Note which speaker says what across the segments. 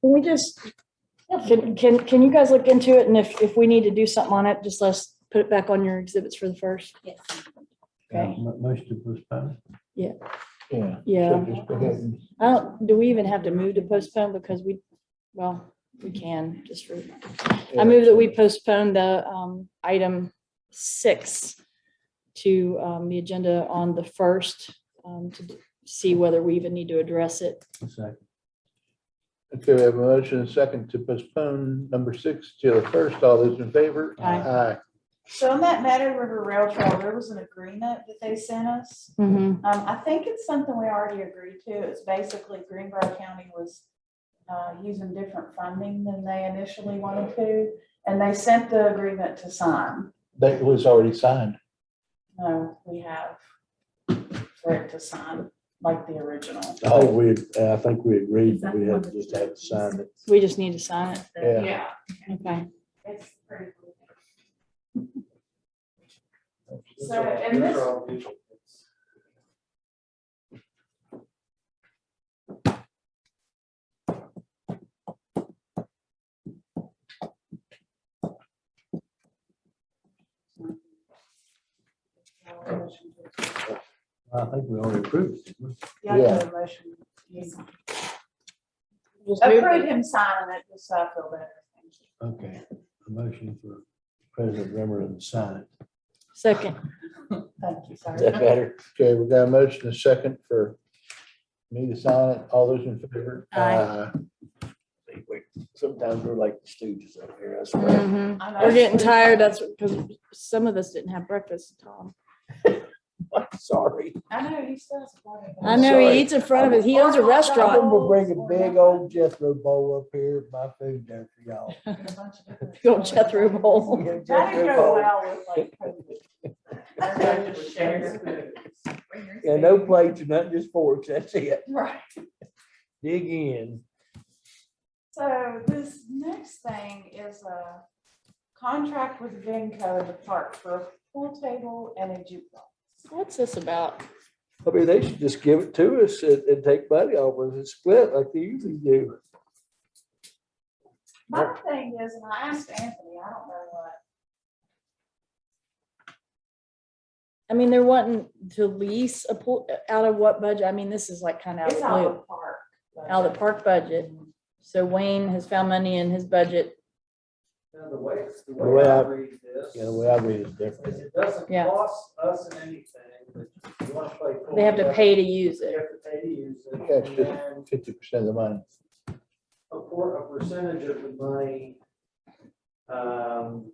Speaker 1: Can we just, can, can, can you guys look into it? And if, if we need to do something on it, just let's put it back on your exhibits for the first.
Speaker 2: Yes.
Speaker 1: Okay.
Speaker 3: Uh, Most of us, but.
Speaker 4: Yeah.
Speaker 1: Yeah.
Speaker 4: Just go ahead and-
Speaker 1: I don't, do we even have to move to postpone? Because we, well, we can just for, I move that we postpone the, um, item six to, um, the agenda on the first, um, to see whether we even need to address it.
Speaker 4: Okay, we have a motion and a second to postpone number six till the first. All those in favor?
Speaker 1: Aye.
Speaker 2: So on that Meadow River Rail Trail, there was an agreement that they sent us.
Speaker 1: Mhm.
Speaker 2: Um, I think it's something we already agreed to. It's basically Greenbrier County was uh, using different funding than they initially wanted to, and they sent the agreement to sign.
Speaker 4: That was already signed.
Speaker 2: No, we have for it to sign, like the original.
Speaker 5: I think we, I think we agreed that we had to just have to sign it.
Speaker 1: We just need to sign it.
Speaker 4: Yeah.
Speaker 1: Okay.
Speaker 2: It's pretty cool. So, and this,
Speaker 3: I think we already approved. it.
Speaker 2: Yeah, I have a motion.
Speaker 1: Just move
Speaker 2: Approve
Speaker 1: it.
Speaker 2: him signing it, just so I feel better. Thank you.
Speaker 3: Okay, a motion for President Remmer to sign it.
Speaker 1: Second.
Speaker 2: Thank you,
Speaker 4: Is that
Speaker 2: sorry.
Speaker 4: better? Okay, we got a motion and a second for me to sign it. All those in favor?
Speaker 1: Aye.
Speaker 5: Sometimes we're like stooges up here, I swear.
Speaker 1: Mhm.
Speaker 2: I know.
Speaker 1: We're getting tired. That's because some of us didn't have breakfast, Tom.
Speaker 5: Sorry.
Speaker 2: I know, you still have to.
Speaker 1: I know he eats in front of it. He owns a
Speaker 5: I
Speaker 1: restaurant.
Speaker 5: remember bringing big old Jethro bowl up here, my food there for y'all.
Speaker 1: Go Jethro Bowl.
Speaker 5: Yeah,
Speaker 2: That didn't go
Speaker 5: Jethro bowl.
Speaker 2: well with like COVID.
Speaker 5: Yeah, no plates or nothing, just forks, that's it.
Speaker 2: Right,
Speaker 5: Dig in.
Speaker 2: so this next thing is a contract with Venco to park for a pool table and a jukebox.
Speaker 1: What's this about?
Speaker 5: I mean, they should just give it to us and, and take money off of it, split like they usually do.
Speaker 2: My thing is, and I asked Anthony, I don't know what
Speaker 1: I mean, they're wanting to lease a pool, out of what budget? I mean, this is like kind of
Speaker 2: It's
Speaker 1: out
Speaker 2: out
Speaker 1: of
Speaker 2: of the park.
Speaker 1: blue, out of the park budget. So Wayne has found money in his budget.
Speaker 6: Now, the way, the
Speaker 4: The way
Speaker 6: way I
Speaker 4: I-
Speaker 6: read this
Speaker 4: Yeah, the way I read it is different.
Speaker 6: is it doesn't
Speaker 1: Yeah.
Speaker 6: cost us anything, but you want to play. pool,
Speaker 1: They have to
Speaker 6: you
Speaker 1: pay to use
Speaker 6: You
Speaker 1: it.
Speaker 6: have to pay to use it.
Speaker 4: Yeah, it's
Speaker 6: and
Speaker 4: just
Speaker 6: then
Speaker 4: fifty percent of the money.
Speaker 6: A por- a percentage of the money um,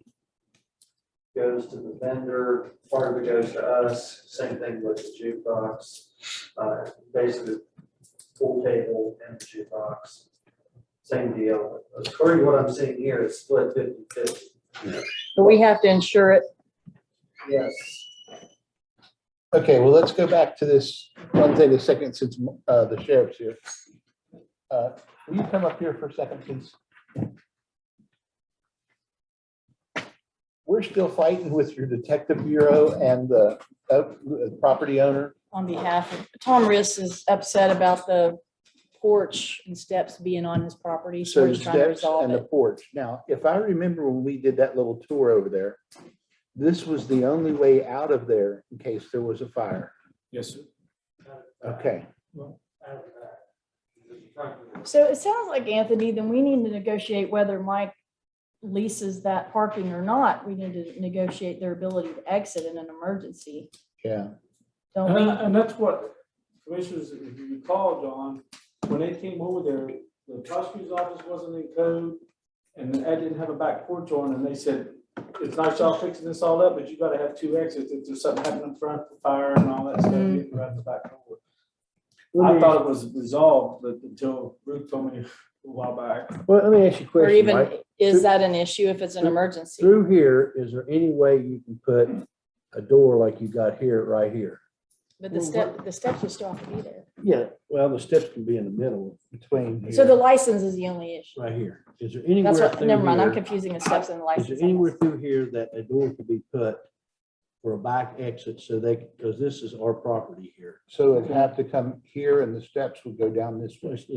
Speaker 6: goes to the vendor, part of it goes to us, same thing with the jukebox. uh, Basically, pool table and the jukebox, same deal. According to what I'm seeing here, it's split fifty-fifty.
Speaker 1: But we have to insure it.
Speaker 6: Yes.
Speaker 4: Okay, well, let's go back to this one thing, a second, since uh, the sheriff's here. Uh, Will you come up here for a second, please? We're still fighting with your detective bureau and the uh, property owner.
Speaker 1: on behalf of, Tom Riss is upset about the porch and steps being on his property, so
Speaker 4: So
Speaker 1: we're
Speaker 4: the
Speaker 1: just trying to
Speaker 4: steps
Speaker 1: resolve
Speaker 4: and the
Speaker 1: it.
Speaker 4: porch. Now, if I remember when we did that little tour over there, this was the only way out of there in case there was a fire.
Speaker 7: Yes, sir.
Speaker 4: Okay,
Speaker 1: So it sounds like, Anthony, then we need to negotiate whether Mike leases that parking or not. We need to negotiate their ability to exit in an emergency.
Speaker 4: yeah.
Speaker 1: Don't
Speaker 7: And,
Speaker 1: we?
Speaker 7: and that's what commissioners, if you recall, John, when they came over there, the prosecutor's office wasn't in code. And I didn't have a back porch on and they said, it's nice y'all fixing this all up, but you gotta have two exits if there's something happening in front, fire and all that stuff, you can run the back door. I thought it was resolved, but until Ruth told me a while back.
Speaker 3: Well, let me ask you a
Speaker 1: Or
Speaker 3: question,
Speaker 1: even,
Speaker 3: Mike.
Speaker 1: is that an issue if it's an emergency?
Speaker 3: Through here, is there any way you can put a door like you got here, right here?
Speaker 1: But the step, the steps will still have to be there.
Speaker 3: Yeah, well, the steps can be in the middle,
Speaker 4: Between.
Speaker 1: So the
Speaker 4: here.
Speaker 1: license is the only issue.
Speaker 3: right here. Is there anywhere?
Speaker 1: That's what,
Speaker 3: through
Speaker 1: never mind, I'm
Speaker 3: here-
Speaker 1: confusing the steps and the license.
Speaker 3: Is there
Speaker 1: I
Speaker 3: anywhere
Speaker 1: guess.
Speaker 3: through here that a door could be put for a back exit so they, because this is our property here?
Speaker 4: So it'd have to come here and the steps would go down this way.
Speaker 3: So it's-